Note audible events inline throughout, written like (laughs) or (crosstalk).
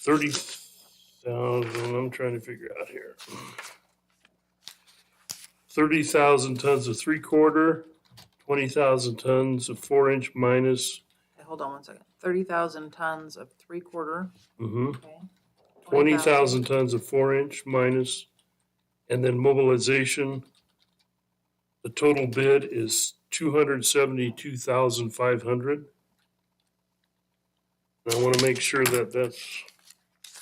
thirty thousand, I'm trying to figure out here. Thirty thousand tons of three quarter, twenty thousand tons of four inch minus, Okay, Hold on one second. Thirty thousand tons of three quarter. mhm, Okay. twenty thousand tons of four inch minus, and then mobilization. The total bid is two hundred seventy-two thousand five hundred. And I wanna make sure that that's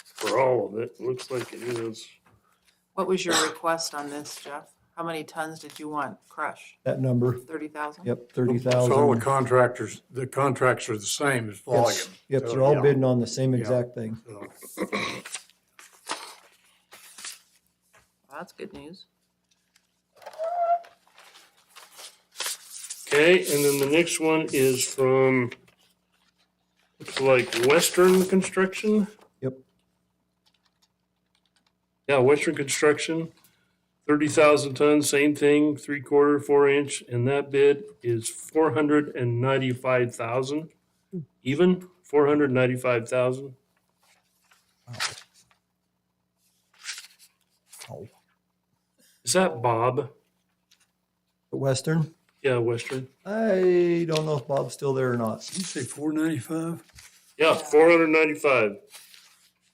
for all of it, looks like it is. What was your request on this, Jeff? How many tons did you want crush? That number, Thirty thousand? yep, thirty So all the thousand. contractors, the contracts are the same as volume. Yep, So, they're all yeah, bidding on the same Yeah. exact thing. so That's good news. Okay, and then the next one is from, looks like Western Construction. Yep. Yeah, Western Construction, thirty thousand tons, same thing, three quarter, four inch, and that bid is four hundred and ninety-five thousand. Even, four hundred ninety-five thousand. Oh. Is that Bob? But Western, Yeah, Western. I don't know if Bob's still there or not. You say four ninety-five? Yeah, Yeah. four hundred ninety-five.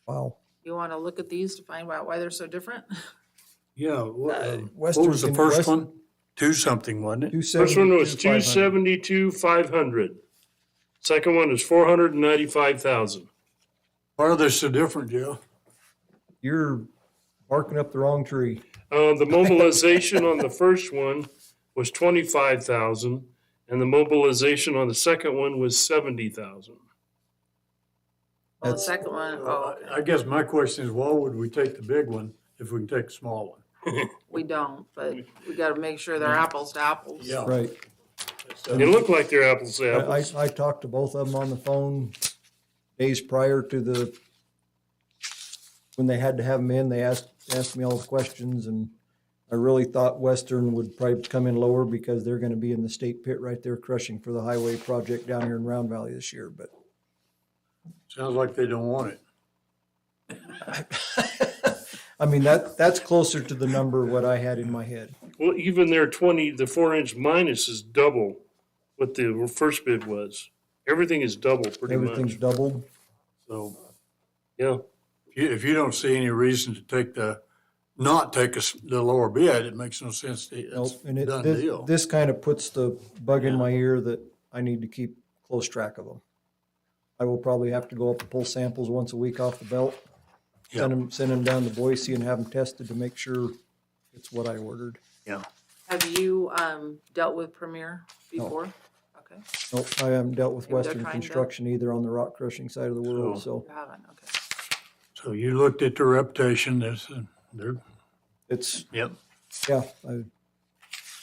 Wow. You want to look at these to find out why they're so different? (laughs) Yeah. What Uh, um, what Western was the can- first West- one? Two something, wasn't it? First one was 272,500. two seventy-two, five hundred. Second one is four hundred and ninety-five thousand. Why are they so different, Joe? You're barking up the wrong tree. Uh, the mobilization on the first one was twenty-five thousand, and the mobilization on the second one was seventy thousand. Well, the That's- second one, oh, Uh, okay. I I guess my question is, why would we take the big one if we can take the small one? we don't, but we got to make sure they're apples to apples. Right. So- It looked like they're apples to I, I, apples. I talked to both of them on the phone days prior to the, when they had to have them in, they asked, asked me all the questions and I really thought Western would probably come in lower because they're gonna be in the state pit right there crushing for the highway project down here in Round Valley this year, but Sounds like they don't want it. I mean, that, that's closer to the number what I had in my head. Well, even their twenty, the four-inch minus is double what the first bid was. Everything is double pretty much. Everything's doubled. So Yeah, if you, if you don't see any reason to take the, not take us, the lower bid, it makes no sense. to- Nope, It's and it, done this, deal. this kind of puts the bug in Yeah. my ear that I need to keep close track of them. I will probably have to go up and pull samples once a week off the belt. Yeah. Send them, send them down to Boise and have them tested to make sure it's what I ordered. Have you um, dealt with Premier before? Okay, Nope, I haven't dealt with Maybe they're Western trying to- Construction either on the rock crushing side of the world, so you haven't. Okay. So you looked at their reputation, there's, they're, it's, yep. yeah, I,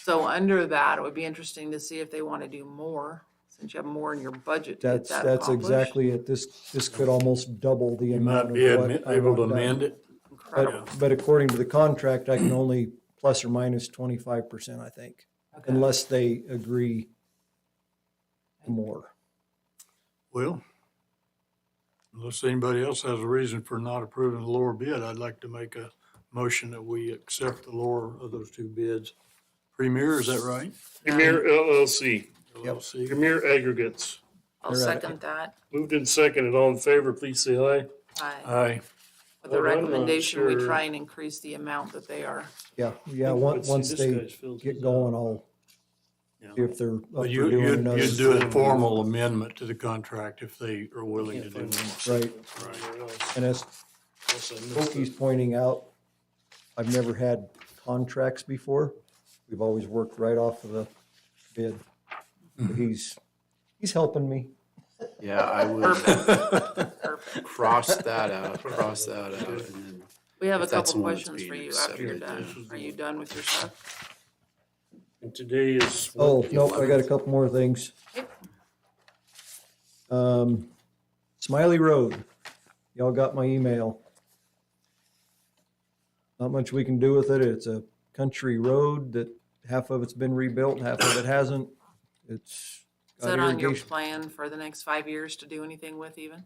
So under that, it would be interesting to see if they want to do more, since you have more in your budget to get that's, that that's accomplished. exactly it. This, this could almost double the You amount of might what. be admi- I able to want done. amend it. Incredible. But, but according to the contract, I can only plus or minus twenty-five percent, I think, Okay. unless they agree more. Well, unless anybody else has a reason for not approving the lower bid, I'd like to make a motion that we accept the lower of those two bids. Premier, is that right? Premier LLC, LLC. Premier Aggregates. I'll You're right. second that. Moved in second and all in favor, please say aye. Aye. Aye. With the Well, I'm not recommendation, we sure. try and increase the amount that they are. Yeah, yeah, Let's once, see, once this they guy's filled get his going, out. I'll Yeah. see if they're up for But you, doing you'd, another. you'd do a formal amendment to the contract if they are willing to do Can't one. find Right, and as Unless I missed Pokey's it. pointing out, I've never had contracts before. We've always worked right off of the bid. Hmm. But He's, he's helping me. Yeah, I would Perfect, perfect. cross that out, cross that out, and then We have a If that's couple the one that's questions for being you after you're accepted, done. Are you done with your stuff? And today is. what? Oh, nope, I got a couple more things. Um, Smiley Road, y'all got my email. Not much we can do with it. It's a country road that half of it's been rebuilt, half of it hasn't. It's Is got that on your irrigation. plan for the next five years to do anything with even?